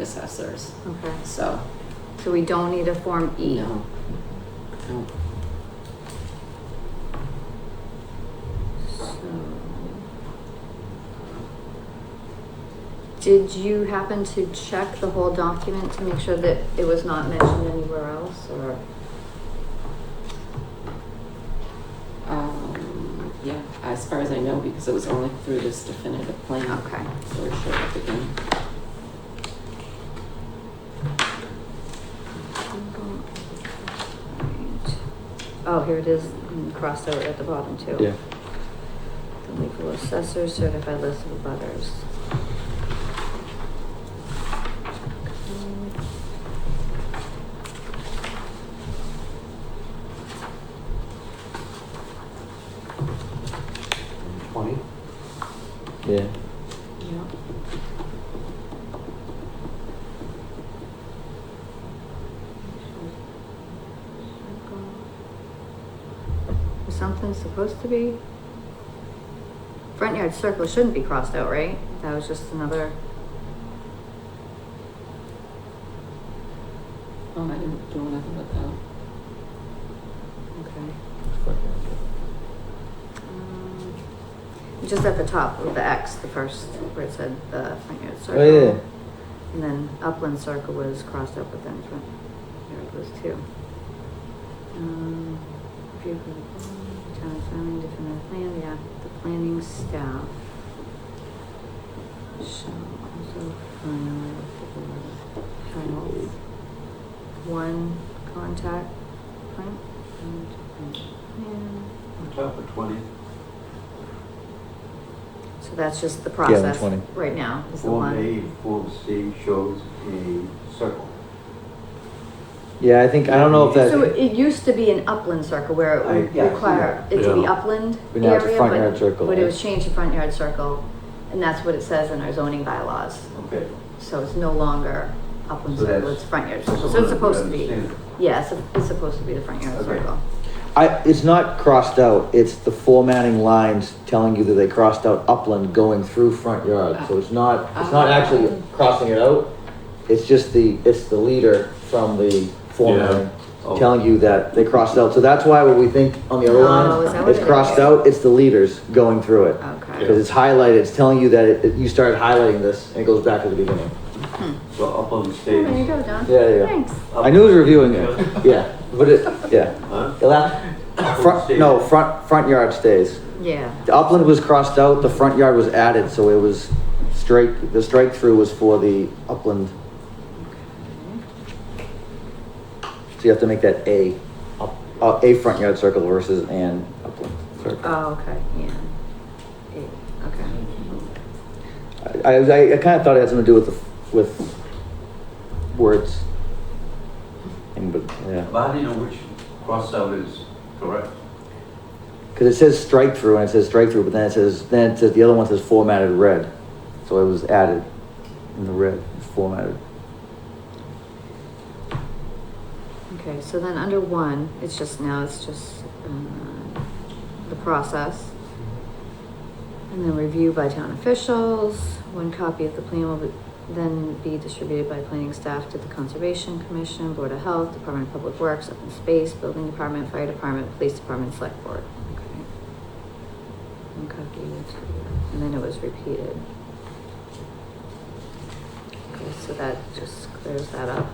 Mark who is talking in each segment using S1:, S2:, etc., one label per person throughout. S1: assessors,
S2: Okay,
S1: so,
S2: so we don't need a Form E?
S1: no. No.
S2: So- Did you happen to check the whole document to make sure that it was not mentioned anywhere else or?
S1: Um, yeah, as far as I know, because it was only through this definitive plan,
S2: Okay,
S1: so we showed up again.
S2: oh, here it is mm, crossed out at the bottom too.
S3: Yeah.
S2: The legal assessor certified list of butters.
S4: Twenty?
S3: Yeah.
S2: Yeah. Was something supposed to be? Front yard circle shouldn't be crossed out, right? That was just another,
S1: Oh, I didn't do anything with that.
S2: okay. Um, Just at the top with the X, the first, where it said the front yard circle.
S3: Oh, yeah.
S2: And then upland circle was crossed up with then front yard was two. Um, vehicle, town zoning, definitive plan, yeah, the planning staff. Shall also file the final one contact point and, and,
S4: Top of twenty.
S2: So that's just the
S3: Yeah, the
S2: process
S3: 20.
S2: right now, is the one.
S4: Form A, Form C shows a circle.
S3: Yeah, I think I don't know if that.
S2: So it used to be an upland circle where it
S4: I-
S2: would
S4: yeah, I see
S2: require
S4: that.
S2: it to be
S3: Yeah.
S2: upland
S3: But now it's a
S2: area,
S3: front yard
S2: but,
S3: circle,
S2: but it
S3: right?
S2: was changed to front yard circle. And that's what it says in our zoning bylaws,
S4: Okay.
S2: so it's no longer upland
S4: So
S2: circle,
S4: that's-
S2: it's front yard
S4: so
S2: circle, so
S4: someone
S2: it's supposed to
S4: would
S2: be.
S4: understand.
S2: Yeah, it's, a- it's supposed to be the front yard
S4: Okay.
S2: circle.
S3: I, it's not crossed out. It's the formatting lines telling you that they crossed out upland going through front yard. So it's not, it's not actually crossing it out. It's just the, it's the leader from the formatting
S4: Oh.
S3: telling you that they crossed out. So that's why what we think on the other
S2: Oh, is that
S3: line,
S2: what
S3: it's
S2: it
S3: crossed
S2: is?
S3: out, it's the leaders going through it. Because
S2: Okay.
S3: it's highlighted, it's telling you that it, you started highlighting this and it goes back to the beginning.
S4: So up on the
S2: Oh, There you
S4: stage.
S2: go, Don.
S3: Yeah, yeah.
S2: Thanks.
S3: I knew it was reviewing it, yeah, but it, yeah.
S4: Huh?
S3: It'll have- Front, no, front, front yard stays.
S2: Yeah,
S3: The upland was crossed out, the front yard was added, so it was strike, the strike through was for the upland. So you have to make that A, up- uh, a front yard circle versus an upland circle.
S2: oh, okay, yeah. Yeah, Okay.
S3: I, I, I kinda thought it had something to do with the, with words. And, but, yeah,
S4: But how do you know which crossout is correct?
S3: cause it says strike through and it says strike through, but then it says, then it says, the other one says formatted red. So it was added in the red, it's formatted.
S2: Okay, so then under one, it's just now, it's just, uh, the process. And then review by town officials, one copy of the plan will be- then be distributed by planning staff to the Conservation Commission, Board of Health, Department of Public Works, Open Space, Building Department, Fire Department, Police Department, Select Board. Okay. One copy, to- and then it was repeated. Okay, so that just clears that up.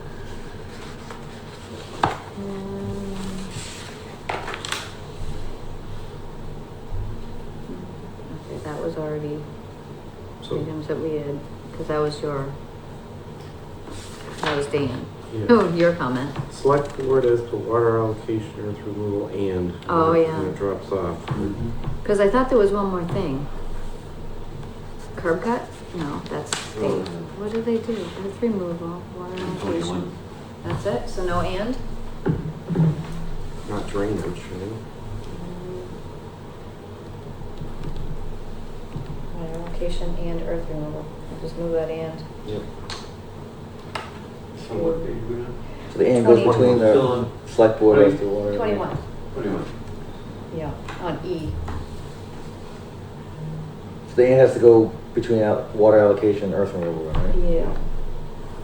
S2: Um, Okay, that was already
S5: So-
S2: items that we had, because that was your, that was Dan.
S5: Yeah.
S2: Oh, your comment.
S5: Select board as to water allocation, earth removal, and.
S2: Oh,
S5: when it-
S2: yeah.
S5: When it drops off.
S4: Mm-hmm.
S2: Because I thought there was one more thing. Curb cut? No, that's
S5: Oh.
S2: eight. What do they do? Earth removal, water allocation. That's it? So no and?
S5: Not drainage, right?
S2: Water allocation and earth removal. I'll Just move that and.
S5: Yep.
S4: So what page we on?
S3: So the and goes between
S4: Still
S3: the
S4: on.
S3: select board as the water.
S2: Twenty-one,
S4: Twenty-one.
S2: yeah, on E.
S3: So the and has to go between out- water allocation and earth removal, right?
S2: Yeah.